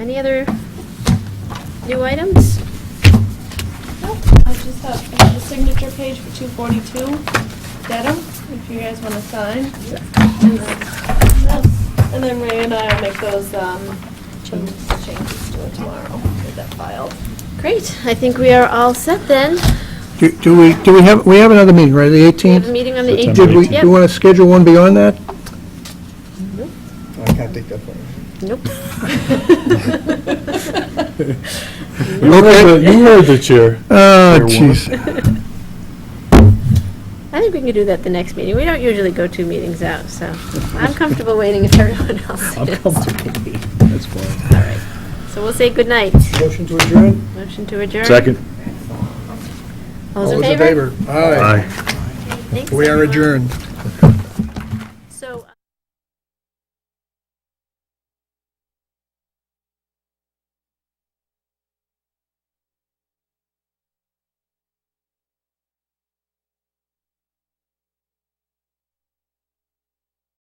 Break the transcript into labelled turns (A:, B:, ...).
A: Any other new items?
B: Nope, I just have the signature page for two forty-two, Dedham, if you guys wanna sign. And then- And then Ray and I will make those, um, changes changes to it tomorrow, get that filed.
A: Great, I think we are all set then.
C: Do do we, do we have, we have another meeting, right, the
A: We have a
C: 18th?
A: meeting on the
C: Did we,
A: 18th.
C: do you want to schedule one beyond that?
D: I can't take that one.
A: Nope.
E: You were the- you were the chair.
C: Oh,
E: Fair
C: jeez.
A: I think we can do that the next meeting. We don't usually go two meetings out, so I'm comfortable waiting if everyone else is.
C: That's fine.
A: So we'll say goodnight.
D: Motion to adjourn?
A: Motion to adjourn.
E: Second.
A: All those in favor?
D: Aye.
A: Thanks,
D: We are
A: everyone.
D: adjourned.